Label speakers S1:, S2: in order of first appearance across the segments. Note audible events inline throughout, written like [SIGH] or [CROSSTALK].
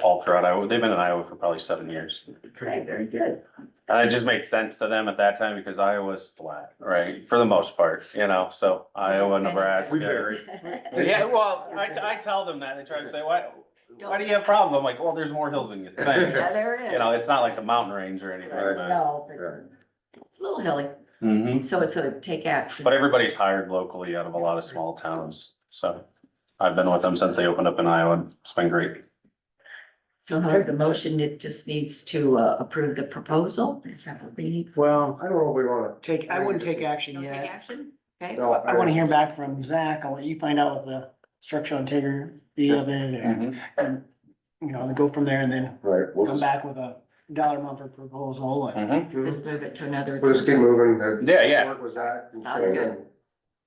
S1: all throughout Iowa. They've been in Iowa for probably seven years.
S2: Okay, very good.
S1: And it just makes sense to them at that time because Iowa's flat, right? For the most part, you know, so Iowa, Nebraska.
S3: We vary.
S1: Yeah, well, I, t- I tell them that. They try to say, why, why do you have a problem? I'm like, well, there's more hills than
S3: [LAUGHS]
S1: you think.
S2: [LAUGHS] Yeah, there it is.
S1: You know, it's not like the mountain range or anything, but,
S2: No,
S3: Right.
S2: but it's a little hilly,
S1: Mhm.
S2: so it's a take action.
S1: but everybody's hired locally out of a lot of small towns. So I've been with them since they opened up in Iowa. It's been great.
S2: So now the motion, it just needs to uh, approve the proposal, is that what we need?
S4: Well,
S3: I don't know if we wanna.
S4: take, I wouldn't take action
S2: Don't take
S4: yet.
S2: action? Okay,
S3: No,
S4: I wanna hear back from Zach. I'll let you find out what the structural integrity of it and, and, you know, go from there and then
S3: Right. we'll
S4: come
S3: just-
S4: back with a dollar amount for proposal and
S1: Mhm.
S2: just move it to another.
S3: We'll just keep moving. The-
S1: Yeah, yeah.
S3: What was that? And
S2: Sounds
S3: so
S2: good.
S3: then-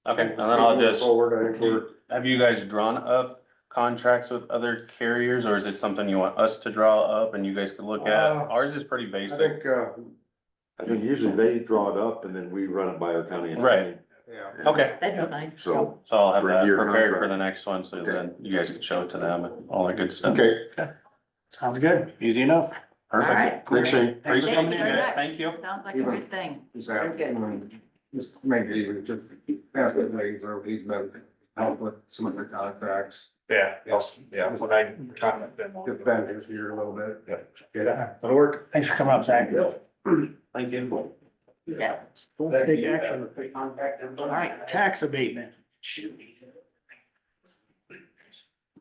S1: Okay, and then I'll just.
S3: Forward, I think we're,
S1: Have you guys drawn up contracts with other carriers, or is it something you want us to draw up and you guys could look at?
S3: Uh,
S1: Ours is pretty
S3: I
S1: basic.
S3: think, uh,
S5: I think usually they draw it up and then we run it by our county.
S1: Right.
S3: yeah.
S1: Okay,
S2: That'd be fine.
S5: So,
S1: so I'll have that
S5: Review
S1: prepared for
S5: contract.
S1: the next one, so then you guys can show it to them and all that good stuff.
S3: Okay,
S4: sounds good. Easy enough.
S2: All right.
S1: Perfect.
S3: thanks, Shane.
S4: Thanks for
S1: Appreciate
S4: coming
S1: you
S4: in.
S1: guys, thank you.
S2: Sounds like a good thing.
S3: Just
S2: Very good.
S3: just maybe even just ask him where he's been, help with some of the contracts.
S6: Yeah, yes, yeah, when I kind of been.
S3: Get vendors here a little bit.
S6: Yeah.
S3: Yeah, that'll work.
S4: Thanks for coming up, Zach.
S1: Thank you.
S2: Yeah,
S4: Let's take action. All right, tax abatement.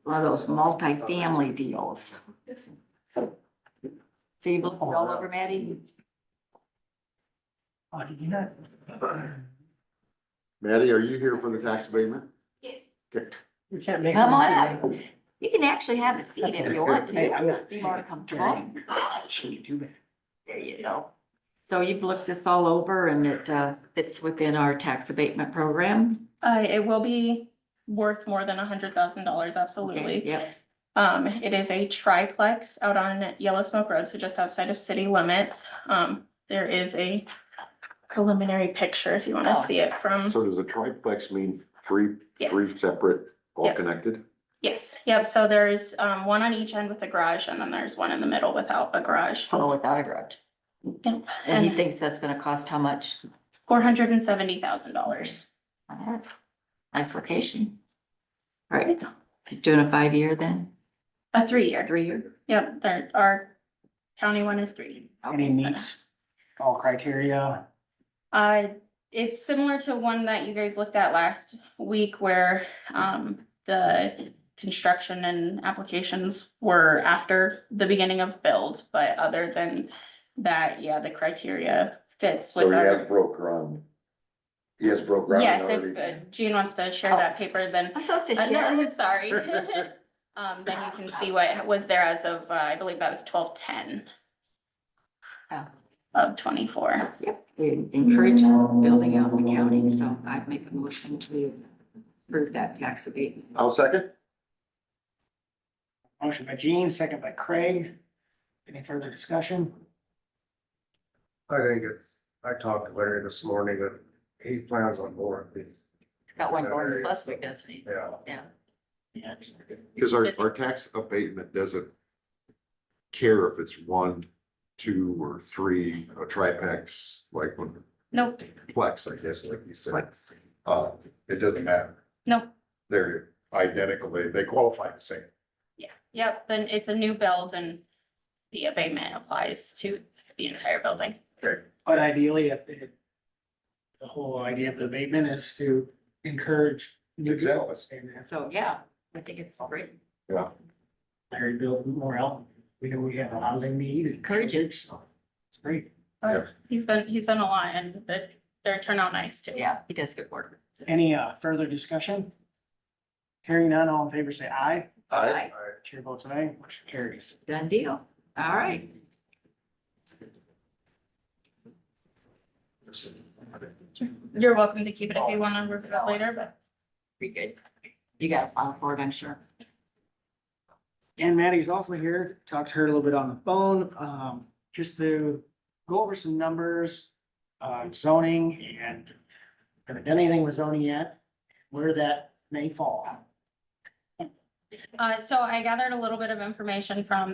S2: one of those multi-family deals. So you looked it all over, Maddie?
S4: Oh, did you not?
S5: Maddie, are you here for the tax abatement?
S4: You can't make.
S2: Come
S4: me
S2: on
S4: do
S2: up.
S4: that.
S2: You can actually have a seat if you want
S4: Hey, I'm
S2: to,
S4: not-
S2: be more comfortable.
S4: Shouldn't do that.
S2: There you go. So you've looked this all over and it uh, fits within our tax abatement program?
S7: Uh, it will be worth more than a hundred thousand dollars,
S2: Okay,
S7: absolutely.
S2: Yep,
S7: Um, it is a triplex out on Yellow Smoke Road, so just outside of city limits. Um, there is a preliminary picture if you wanna
S2: Oh,
S7: see it from,
S5: So does a triplex mean three,
S7: Mm-hmm. Yeah.
S5: three separate, all
S7: Yep.
S5: connected?
S7: yes, yep, so there's, um, one on each end with a garage and then there's one in the middle without a garage.
S2: total without a grudge.
S7: Yep,
S2: Oh, And he
S7: And
S2: thinks that's gonna cost how much?
S7: four hundred and seventy thousand dollars.
S2: Nice location. All right, he's doing a five-year then,
S7: A three-year,
S2: three-year?
S7: yep, there, our county one is three.
S4: And he meets all criteria.
S7: Uh, it's similar to one that you guys looked at last week where, um, the construction and applications were after the beginning of build, but other than that, yeah, the criteria fits
S5: So
S7: with
S5: he has
S7: our.
S5: broke ground. He has broke ground
S7: Yes, if
S5: already.
S7: uh, Jean wants to share that paper, then,
S2: I'm supposed to
S7: uh,
S2: share?
S7: no, [LAUGHS] sorry. Um, then you can see what was there as of, uh, I believe that was twelve-ten
S2: Oh.
S7: of twenty-four.
S2: Yep, we encourage building out in the county, so I'd make a motion to approve that tax abatement.
S5: I'll second.
S4: Motion by Gene, second by Craig. Any further discussion?
S3: I think it's, I talked to Larry this morning, and he plans on more of these,
S2: It's got one going plus, doesn't it?
S3: yeah.
S2: Yeah.
S4: Yeah.
S5: Cause our, our tax abatement doesn't care if it's one, two, or three, a triplex, like one
S7: Nope,
S5: plex, I guess, like you said. Uh, it doesn't matter.
S7: nope.
S5: They're identical. They, they qualify the same.
S7: Yeah, yep, then it's a new build and the abatement applies to the entire building.
S4: But ideally, if it, the whole idea of the abatement is to encourage new builds and if
S2: So, yeah, I think it's great.
S4: Larry build more out, we know we have a housing need. and-
S2: Encourage it.
S4: so It's great.
S7: He's been, he's done a lot and the, their turnout nice too.
S2: Yeah, he does good work.
S4: Any uh, further discussion? Hearing none, all in favor, say aye.
S5: I,
S2: Aye.
S4: Chair votes aye, motion carries.
S2: Done deal. All right.
S7: You're welcome to keep it if you want to review it later, but
S2: Pretty good. You got a file for it, I'm sure.
S4: And Maddie's also here, talked to her a little bit on the phone, um, just to go over some numbers, uh, zoning and haven't done anything with zoning yet, where that may fall.
S7: uh, so I gathered a little bit of information from